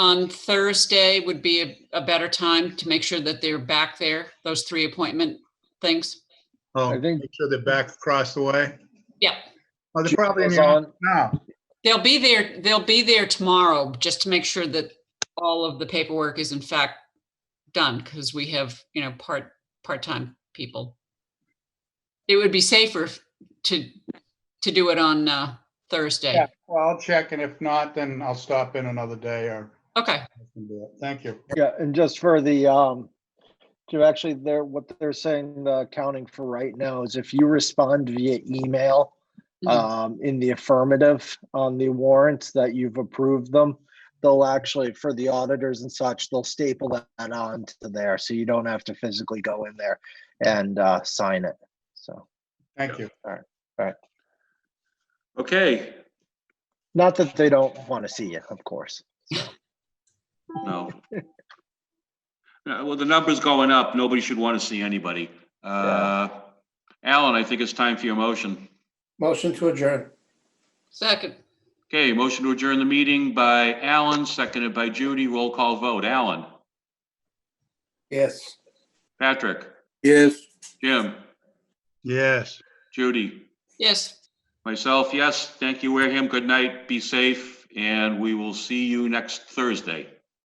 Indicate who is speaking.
Speaker 1: on Thursday would be a, a better time to make sure that they're back there, those three appointment things.
Speaker 2: Oh,
Speaker 3: I think-
Speaker 2: make sure they're back across the way.
Speaker 1: Yeah,
Speaker 2: Oh, they're probably in the
Speaker 3: Jill was
Speaker 2: office now.
Speaker 1: they'll be there, they'll be there tomorrow, just to make sure that all of the paperwork is in fact done, because we have, you know, part, part-time people. It would be safer if- to, to do it on uh, Thursday.
Speaker 2: Yeah, well, I'll check, and if not, then I'll stop in another day or
Speaker 1: Okay,
Speaker 2: I can do it. Thank you.
Speaker 3: Yeah, and just for the, um, to actually, they're, what they're saying, the accounting for right now is if you respond via email,
Speaker 1: Mhm.
Speaker 3: um, in the affirmative on the warrants that you've approved them, they'll actually, for the auditors and such, they'll staple that on to there, so you don't have to physically go in there and, uh, sign it, so.
Speaker 2: Thank you.
Speaker 4: Okay,
Speaker 3: Not that they don't want to see you, of course.
Speaker 4: no. No, Well, the number's going up. Nobody should want to see anybody. Uh, Alan, I think it's time for your motion.
Speaker 5: Motion to adjourn.
Speaker 1: second,
Speaker 4: Okay, motion to adjourn the meeting by Alan, seconded by Judy. Roll call vote. Alan,
Speaker 5: Yes.
Speaker 4: Patrick,
Speaker 5: Yes.
Speaker 4: Jim,
Speaker 2: Yes.
Speaker 4: Judy,
Speaker 1: yes.
Speaker 4: myself, yes. Thank you, Wareham. Good night. Be safe, and we will see you next Thursday.